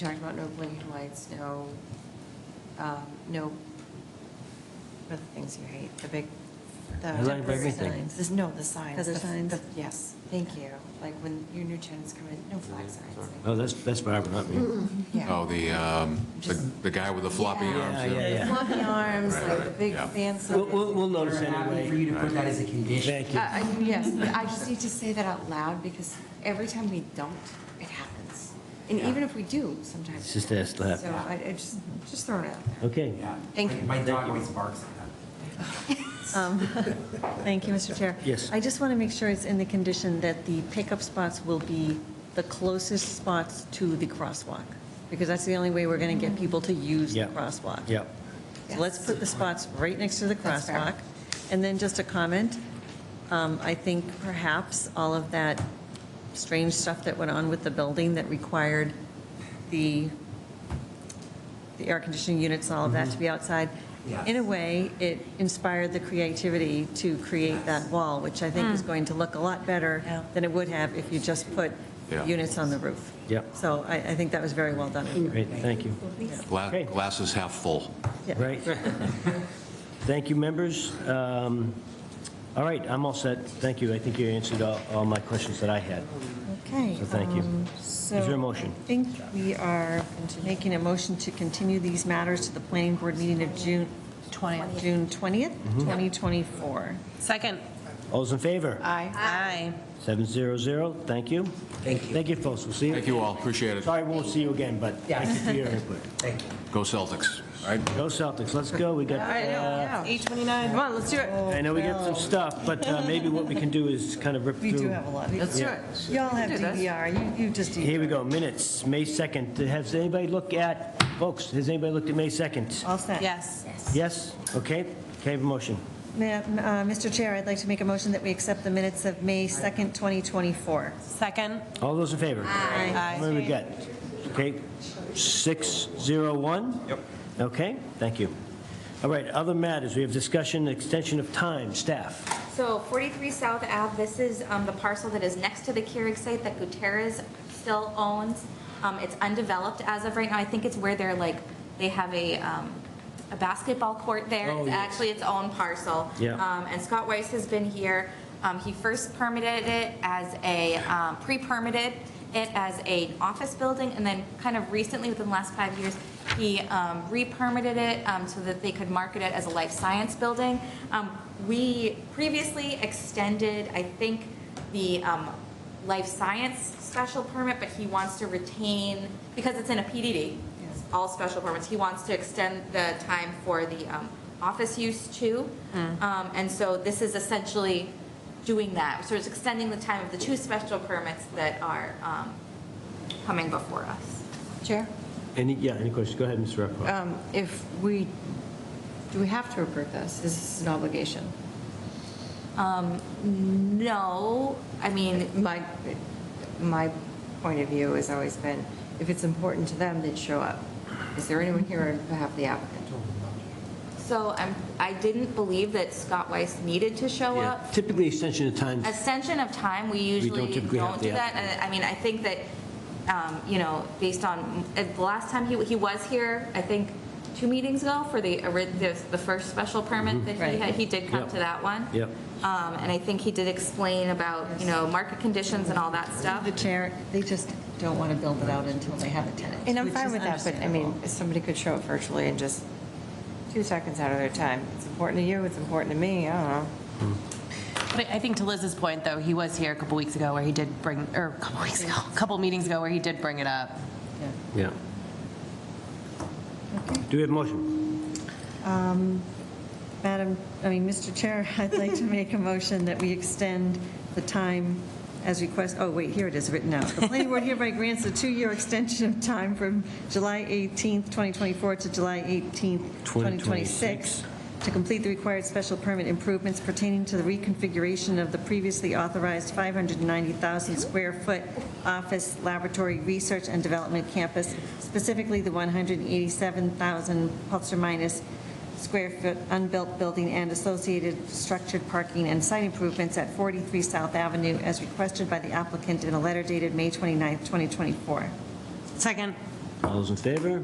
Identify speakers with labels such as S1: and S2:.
S1: talking about no blinking lights, no, um, no, what are the things you hate, the big, the.
S2: I like everything.
S1: signs. This- No, the signs.
S3: Other
S1: the-
S3: signs?
S1: the- Yes, thank you. Like when your new tenants come in, no flag signs. like-
S2: Oh, that's, that's Barbara, not me.
S1: Yeah.
S4: Oh, the, um, the the guy with the floppy
S1: Yeah.
S4: arms.
S2: Yeah, yeah, yeah.
S1: Floppy arms,
S4: Right,
S1: like the
S4: right,
S1: big
S4: yeah.
S1: fans.
S2: We'll, we'll we'll notice
S5: We're happy for
S2: anyway.
S5: you to put that as a condition.
S2: Thank you.
S1: Yes, but I just need to say that out loud because every time we don't, it happens. And even if we do, sometimes.
S2: It's
S1: it
S2: just that slap.
S1: happens. So I, I just, just throwing it out there.
S2: Okay.
S5: Yeah.
S1: Thank you.
S5: My dog always barks at that.
S3: Um, Thank you, Mr. Chair.
S2: Yes.
S3: I just want to make sure it's in the condition that the pickup spots will be the closest spots to the crosswalk, because that's the only way we're going to
S1: Mm-hmm.
S3: get people to use the
S2: Yeah.
S3: crosswalk.
S2: Yeah.
S3: So let's put the spots right next to the
S1: That's fair.
S3: crosswalk. And then just a comment, um, I think perhaps all of that strange stuff that went on with the building that required the, the air conditioning units, all of
S2: Mm-hmm.
S3: that to be outside.
S5: Yes.
S3: In a way, it inspired the creativity to create that wall, which I think
S1: Mm.
S3: is going to look a lot better than it would have if you just put
S4: Yeah.
S3: units on the roof.
S2: Yeah.
S3: So I, I think that was very well
S1: Mm.
S3: done.
S2: Great, thank you.
S4: Gla-
S2: Okay.
S4: Glasses half full.
S3: Yeah.
S2: Right. Thank you, members. Um, All right, I'm all set. Thank you. I think you answered all, all my questions that I had.
S3: Okay.
S2: So thank you.
S3: um,
S2: Is there a
S3: so
S2: motion?
S3: I think we are making a motion to continue these matters to the planning board meeting of June 20th, June 20th,
S2: Mm-hmm.
S3: 2024.
S6: Second.
S2: All's in favor?
S6: Aye. Aye.
S2: 700, thank you. Thank you. Thank you, folks. We'll see you.
S4: Thank you all, appreciate it.
S2: Sorry, won't see you again, but thank you for your input.
S4: Go Celtics, all right?
S2: Go Celtics, let's go. We got,
S6: All right,
S2: uh,
S6: now, 8:29, come on, let's do it.
S2: I know we got some stuff, but uh, maybe what we can do is kind of rip through.
S3: We do have a lot.
S6: Let's do it.
S3: Y'all have
S6: Do this.
S3: DVR, you, you just.
S2: Here we go, minutes, May 2nd. Has anybody looked at, folks, has anybody looked at May 2nd?
S3: All set.
S6: Yes.
S2: Yes? Okay, can I have a motion?
S3: Ma- uh, Mr. Chair, I'd like to make a motion that we accept the minutes of May 2nd, 2024.
S6: Second.
S2: All those in favor?
S6: Aye.
S2: What do we got? Okay, 601? Yep. Okay, thank you. All right, other matters, we have discussion, extension of time, staff.
S7: So 43 South Ave, this is um, the parcel that is next to the Keurig site that Gutierrez still owns. Um, It's undeveloped as of right now. I think it's where they're like, they have a, um, a basketball court there. It's actually its own parcel.
S2: Yeah.
S7: Um, And Scott Weiss has been here. Um, He first permitted it as a, um, pre-permitted it as an office building, and then kind of recently, within the last five years, he um, re-permitted it um, so that they could market it as a life science building. Um, We previously extended, I think, the um, life science special permit, but he wants to retain, because it's in a PDD, all special permits, he wants to extend the time for the um, office use too. Um, And so this is essentially doing that, so it's extending the time of the two special permits that are um, coming before us.
S1: Chair?
S2: Any, yeah, any questions? Go ahead, Mr. Repro.
S1: Um, If we, do we have to approve this? Is this an obligation?
S7: Um, No, I mean,
S1: My, my point of view has always been, if it's important to them, they'd show up. Is there anyone here on behalf of the applicant?
S7: so I'm, I didn't believe that Scott Weiss needed to show
S2: Yeah,
S7: up.
S2: Typically, extension of time,
S7: Ascension of time, we usually
S2: typically have
S7: don't do
S2: the
S7: that. And I mean, I think that, um, you know, based on, at the last time he, he was here, I think, two meetings ago for the, ori- the the first special
S2: Mm-hmm.
S7: permit that he
S3: Right.
S7: had, he did come
S2: Yep.
S7: to that one.
S2: Yep.
S7: Um, And I think he did explain about, you know, market conditions and all that stuff.
S3: The chair, they just don't want to build it out until they have a tenant.
S1: And I'm
S3: which
S1: fine
S3: is
S1: with that, but I mean, if somebody could show up virtually and just two seconds out of their time. It's important to you, it's important to me, I don't know.
S6: But I think to Liz's point, though, he was here a couple weeks ago where he did bring, or a couple weeks ago, a couple meetings ago where he did bring it up.
S2: yeah. Do we have a motion?
S3: Madam, I mean, Mr. Chair, I'd like to make a motion that we extend the time as request, oh, wait, here it is written out. The planning board hereby grants a two-year extension of time from July 18th, 2024 to July 18th, 2026 to complete the required special permit improvements pertaining to the reconfiguration of the previously authorized 590,000 square foot office, laboratory, research and development campus, specifically the 187,000 plus or minus square foot unbuilt building and associated structured parking and site improvements at 43 South Avenue as requested by the applicant in a letter dated May 29, 2024.
S6: Second.
S2: All those in favor?